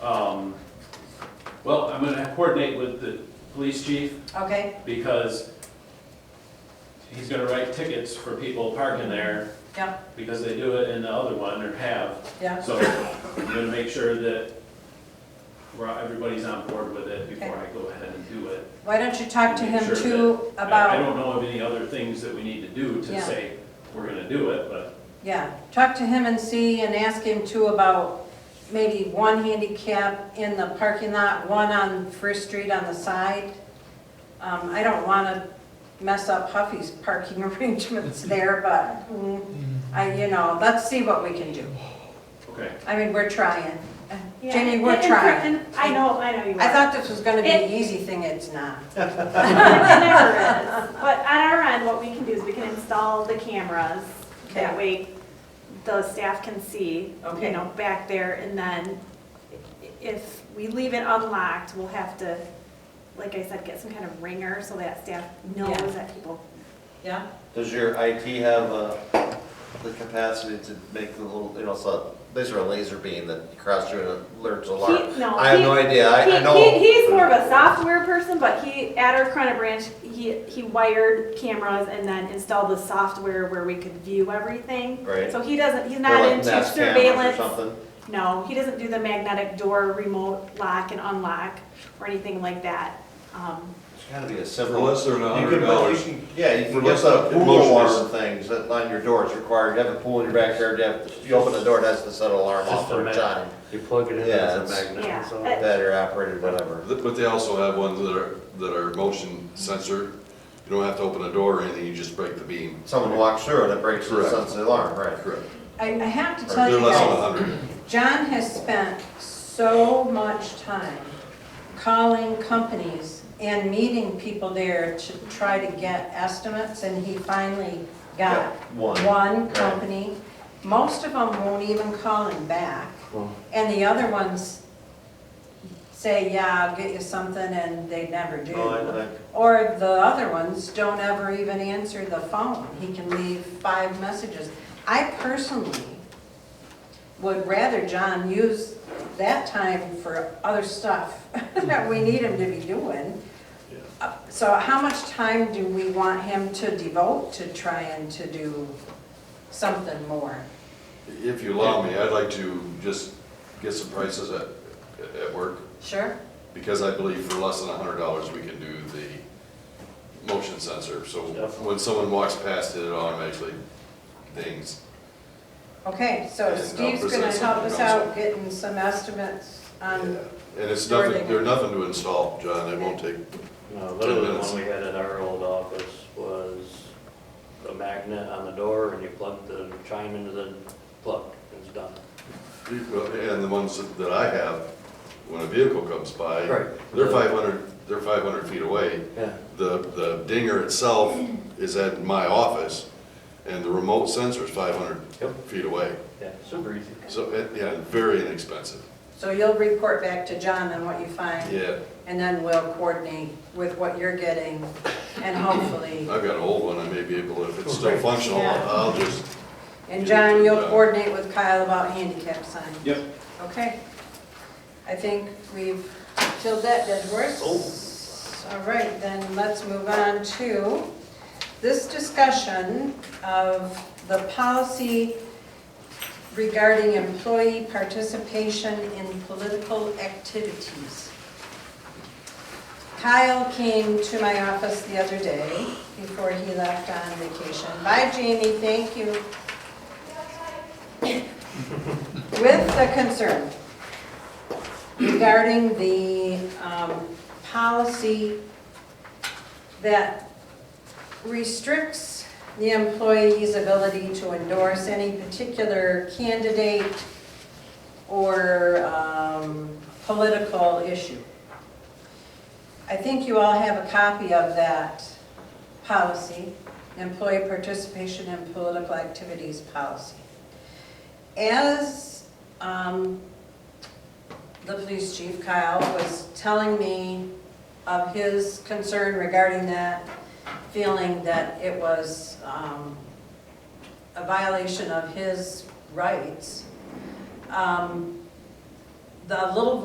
Um, Well, I'm gonna coordinate with the police chief Okay, because he's gonna write tickets for people parking there yeah, because they do it in the other one or have. yeah, So I'm gonna make sure that we're, everybody's on board with it before I go ahead and do it. why don't you talk to him Sure, uh, too I- I about, don't know of any other things that we need to do Yeah. to say we're gonna do it, but yeah, talk to him and see and ask him too about maybe one handicap in the parking lot, one on First Street on the side. Um, I don't wanna mess up Huffy's parking arrangements there, but, mm, I, you know, let's see what we can do. okay. I mean, we're trying. Yeah, Jenny, we're and- and- trying. and I know, I know you are. I thought this was gonna be an easy thing, it's not. It never is. But on our end, what we can do is we can install the cameras. That Okay. way, the staff can see, you Okay. know, back there. And then i- if we leave it unlocked, we'll have to, like I said, get some kind of ringer so that staff Yeah. knows that people. Yeah? Does your IT have uh, the capacity to make the little, you know, so, these are a laser beam that crosses through and alerts alarm? He- no, I have he- no idea, I, I He- know. he- He's more of a software person, but he, at our Corona branch, he, he wired cameras and then installed the software where we could view everything. Right. So he doesn't, he's Or not like into Nest cameras surveillance. Or something, No, he doesn't do the magnetic door remote lock and unlock or anything like that. Um, it's gotta be a For simple. less than a You hundred can, but you dollars. can, yeah, you For can get less a than a pool alarm motion. things that line your door, it's required, you have a pool in your backyard, you have, you open the door, it has to set an alarm Just off a for a minute. time. You plug it in Yeah, as a it's- magnet. Yeah. so- Uh, That are operated, whatever. Th- But they also have ones that are, that are motion sensor. You don't have to open a door or anything, you just break the beam. Someone walks through and it breaks the Correct. sense of the alarm, right? Correct. I, I have to tell They're you less than a guys, hundred. John has spent so much time calling companies and meeting people there to try to get estimates, and he finally got Got one. one company. Most of them won't even call him back, Well, and the other ones say, yeah, I'll get you something, and they never do. No, Oh, I- I- Or the other ones don't ever even answer the phone. He can leave five messages. I personally would rather John use that time for other stuff that we need him to be doing. Uh, So how much time do we want him to devote to trying to do something more? If you allow me, I'd like to just get some prices at, at work, Sure? because I believe for less than a hundred dollars, we can do the motion sensor. So Definitely. when someone walks past it, it automatically dings. Okay, so And I'll Steve's gonna present help us something out also. getting some estimates on, Yeah, And it's Um, Door nothing, dinger. they're nothing to install, John, it won't take, No, literally the minutes. one we had at our old office was a magnet on the door and you plug the chime into the plug, it's done. and the ones that I have, when a vehicle comes by, Right. they're five hundred, they're five hundred feet away. Yeah. The, the dinger itself is at my office, and the remote sensor is five hundred Yep. feet away. Yeah, super easy. So, it- yeah, very inexpensive. so you'll report back to John on what you find? Yeah, And then we'll coordinate with what you're getting and hopefully, I've got an old one, I may be able, if it's still functional, Yeah. I'll just, and John, you'll coordinate with Kyle about handicap signs. Yep. Okay. I think we've killed that dead horse. All right, then let's move on to this discussion of the policy regarding employee participation in political activities. Kyle came to my office the other day before he left on vacation. Bye, Jamie, thank you. With the concern regarding the um, policy that restricts the employee's ability to endorse any particular candidate or um, political issue. I think you all have a copy of that policy, employee participation in political activities policy. As um, the police chief, Kyle, was telling me of his concern regarding that, feeling that it was um, a violation of his rights, um, the little